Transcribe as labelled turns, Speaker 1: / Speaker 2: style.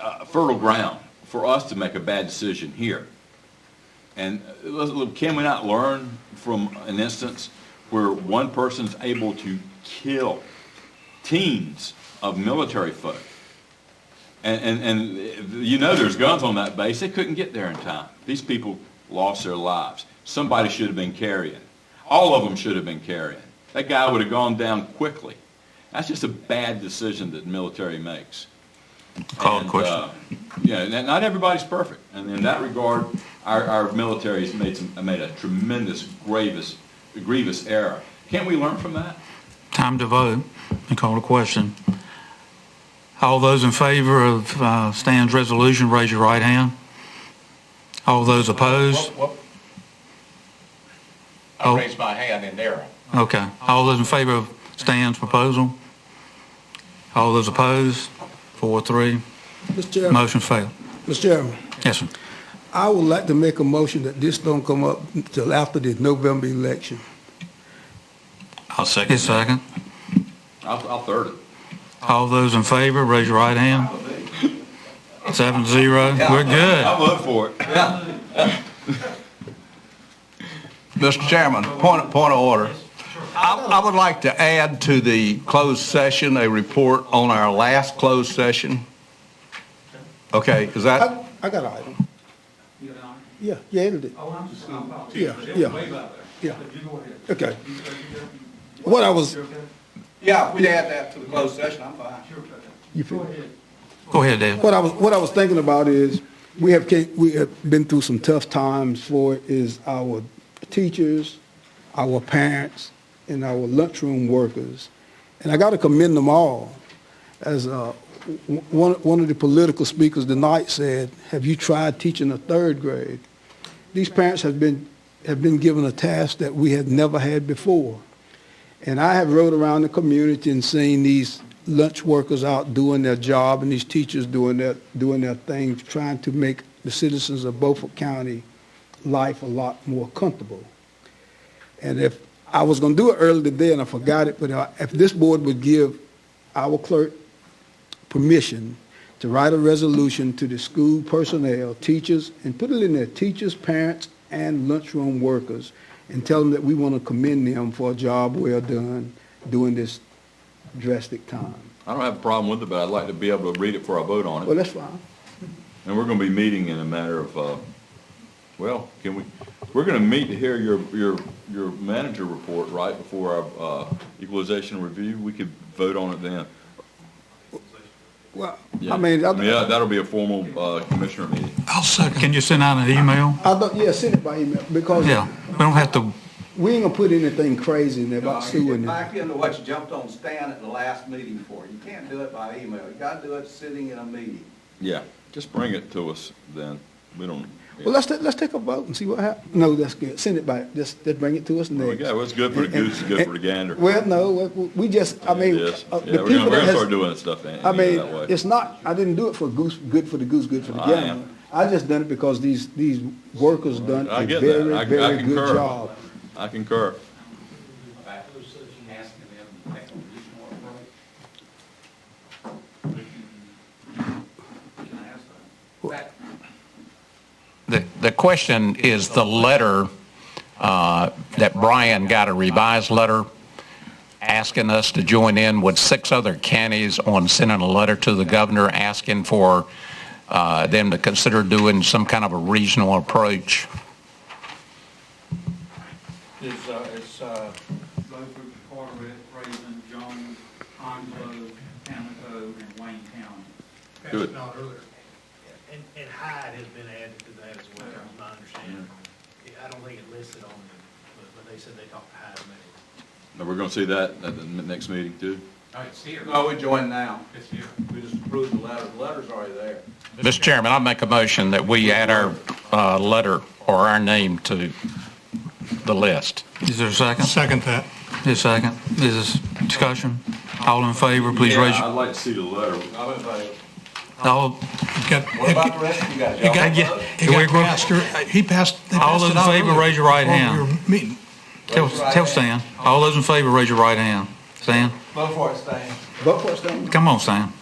Speaker 1: uh, fertile ground for us to make a bad decision here. And uh, let's- look, can we not learn from an instance where one person's able to kill teams of military folk? And, and, and you know there's guns on that base. They couldn't get there in time. These people lost their lives. Somebody should have been carrying. All of them should have been carrying. That guy would have gone down quickly. That's just a bad decision that the military makes.
Speaker 2: Call a
Speaker 1: And,
Speaker 2: question.
Speaker 1: uh, Yeah, and not everybody's perfect. And in that regard, our, our military's made some, made a tremendous grievous, grievous error. Can't we learn from that?
Speaker 2: Time to vote and call a question. All those in favor of uh, Stan's resolution, raise your right hand. All those opposed?
Speaker 3: Whoop, whoop.
Speaker 2: Oh.
Speaker 3: I raised my hand in there.
Speaker 2: Okay. All those in favor of Stan's proposal? All those opposed? Four, three.
Speaker 4: Mr. Chairman,
Speaker 2: Motion failed.
Speaker 4: Mr. Chairman,
Speaker 2: Yes, sir.
Speaker 4: I would like to make a motion that this don't come up until after the November election.
Speaker 5: I'll second
Speaker 2: His second.
Speaker 1: I'll, I'll third it.
Speaker 2: All those in favor, raise your right hand. Seven, zero. We're good.
Speaker 1: I'll vote for it.
Speaker 3: Mr. Chairman, point, point of order. I, I would like to add to the closed session a report on our last closed session. Okay, is that,
Speaker 4: I, I got an item. Yeah, yeah, it did.
Speaker 6: Oh, I'm just, I'm about
Speaker 4: Yeah,
Speaker 6: It's
Speaker 4: yeah.
Speaker 6: way back there.
Speaker 4: Yeah.
Speaker 6: But you go ahead.
Speaker 4: Okay.
Speaker 6: You- you- you-
Speaker 4: What I was,
Speaker 6: You're okay?
Speaker 3: yeah, if we'd add that to the closed session, I'm fine.
Speaker 6: You're okay.
Speaker 4: You
Speaker 6: Go
Speaker 4: feel-
Speaker 6: ahead.
Speaker 2: Go ahead, Dave.
Speaker 4: what I was, what I was thinking about is, we have, ca- we have been through some tough times for it, is our teachers, our parents, and our lunchroom workers. And I got to commend them all. As uh, w- one, one of the political speakers tonight said, have you tried teaching a third grade? These parents have been, have been given a task that we have never had before. And I have rode around the community and seen these lunch workers out doing their job and these teachers doing their, doing their thing, trying to make the citizens of Beaufort County life a lot more comfortable. And if, I was gonna do it earlier today and I forgot it, but uh, if this board would give our clerk permission to write a resolution to the school personnel, teachers, and put it in there, teachers, parents, and lunchroom workers, and tell them that we want to commend them for a job well done during this drastic time.
Speaker 1: I don't have a problem with it, but I'd like to be able to read it before I vote on it.
Speaker 4: Well, that's fine.
Speaker 1: And we're gonna be meeting in a matter of, uh, well, can we, we're gonna meet to hear your, your, your manager report, right, before our, uh, equalization review, we could vote on it then.
Speaker 4: Well,
Speaker 1: Yeah.
Speaker 4: I mean, I,
Speaker 1: Yeah,
Speaker 4: I
Speaker 1: that'll be a formal, uh, commissioner meeting.
Speaker 2: I'll second. Can you send out an email?
Speaker 4: thought, yeah, send it by email, because
Speaker 2: Yeah. We don't have to
Speaker 4: we ain't gonna put anything crazy in there about Sue and them.
Speaker 3: Back into what you jumped on Stan at the last meeting for. You can't do it by email. You gotta do it sitting in a meeting.
Speaker 1: Yeah, just bring it to us then, we don't.
Speaker 4: Well, let's, ta- let's take a vote and see what happens. No, that's good. Send it by, just, just bring it to us
Speaker 1: There we
Speaker 4: next.
Speaker 1: go, it's good for the goose, it's good for the gander.
Speaker 4: Well, no, we- we just, I mean,
Speaker 1: It is.
Speaker 4: uh,
Speaker 1: Yeah,
Speaker 4: the
Speaker 1: we're gonna, we're
Speaker 4: people that
Speaker 1: gonna start
Speaker 4: has,
Speaker 1: doing stuff that,
Speaker 4: I
Speaker 1: that way.
Speaker 4: mean, it's not, I didn't do it for goose, good for the goose, good for the
Speaker 1: I am.
Speaker 4: gander. I just done it because these, these workers done
Speaker 1: I
Speaker 4: a
Speaker 1: get that. I- I
Speaker 4: very, very
Speaker 1: concur.
Speaker 4: good job.
Speaker 1: I concur.
Speaker 7: The, the question is the letter uh, that Brian got, a revised letter asking us to join in with six other counties on sending a letter to the governor asking for uh, them to consider doing some kind of a regional approach.
Speaker 6: It's, uh, it's, uh. Beaufort, Carteret, Raven, Jones, Onslow, Pamlico, and Wayne County.
Speaker 1: Good.
Speaker 8: And, and Hyde has been added to that as well, is my understanding. Yeah, I don't think it listed on them, but, but they said they talked to Hyde maybe.
Speaker 1: Now, we're gonna see that at the m- next meeting too.
Speaker 6: Oh, it's here.
Speaker 3: No, we join now.
Speaker 6: It's here.
Speaker 3: We just approved the letter. The letter's already there.
Speaker 7: Mr. Chairman, I make a motion that we add our uh, letter or our name to the list.
Speaker 2: Is there a second? Second that. Is second? Is this discussion? All in favor, please raise
Speaker 1: I'd
Speaker 2: your,
Speaker 1: like to see the letter.
Speaker 3: I'm in favor.
Speaker 2: all,
Speaker 3: What about the rest of you guys? Y'all
Speaker 2: got-
Speaker 3: vote?
Speaker 2: yeah.
Speaker 9: It
Speaker 2: We're-
Speaker 9: got
Speaker 2: we're-
Speaker 9: passed, or- he passed. they
Speaker 2: All
Speaker 9: passed
Speaker 2: those
Speaker 9: it
Speaker 2: in
Speaker 9: out
Speaker 2: favor,
Speaker 9: earlier
Speaker 2: raise your right
Speaker 9: while we
Speaker 2: hand.
Speaker 9: were meeting.
Speaker 2: tell, tell Stan. All those in favor, raise your right hand. Stan,
Speaker 3: Vote for it, Stan.
Speaker 4: Vote for it, Stanley.
Speaker 2: come on, Stan.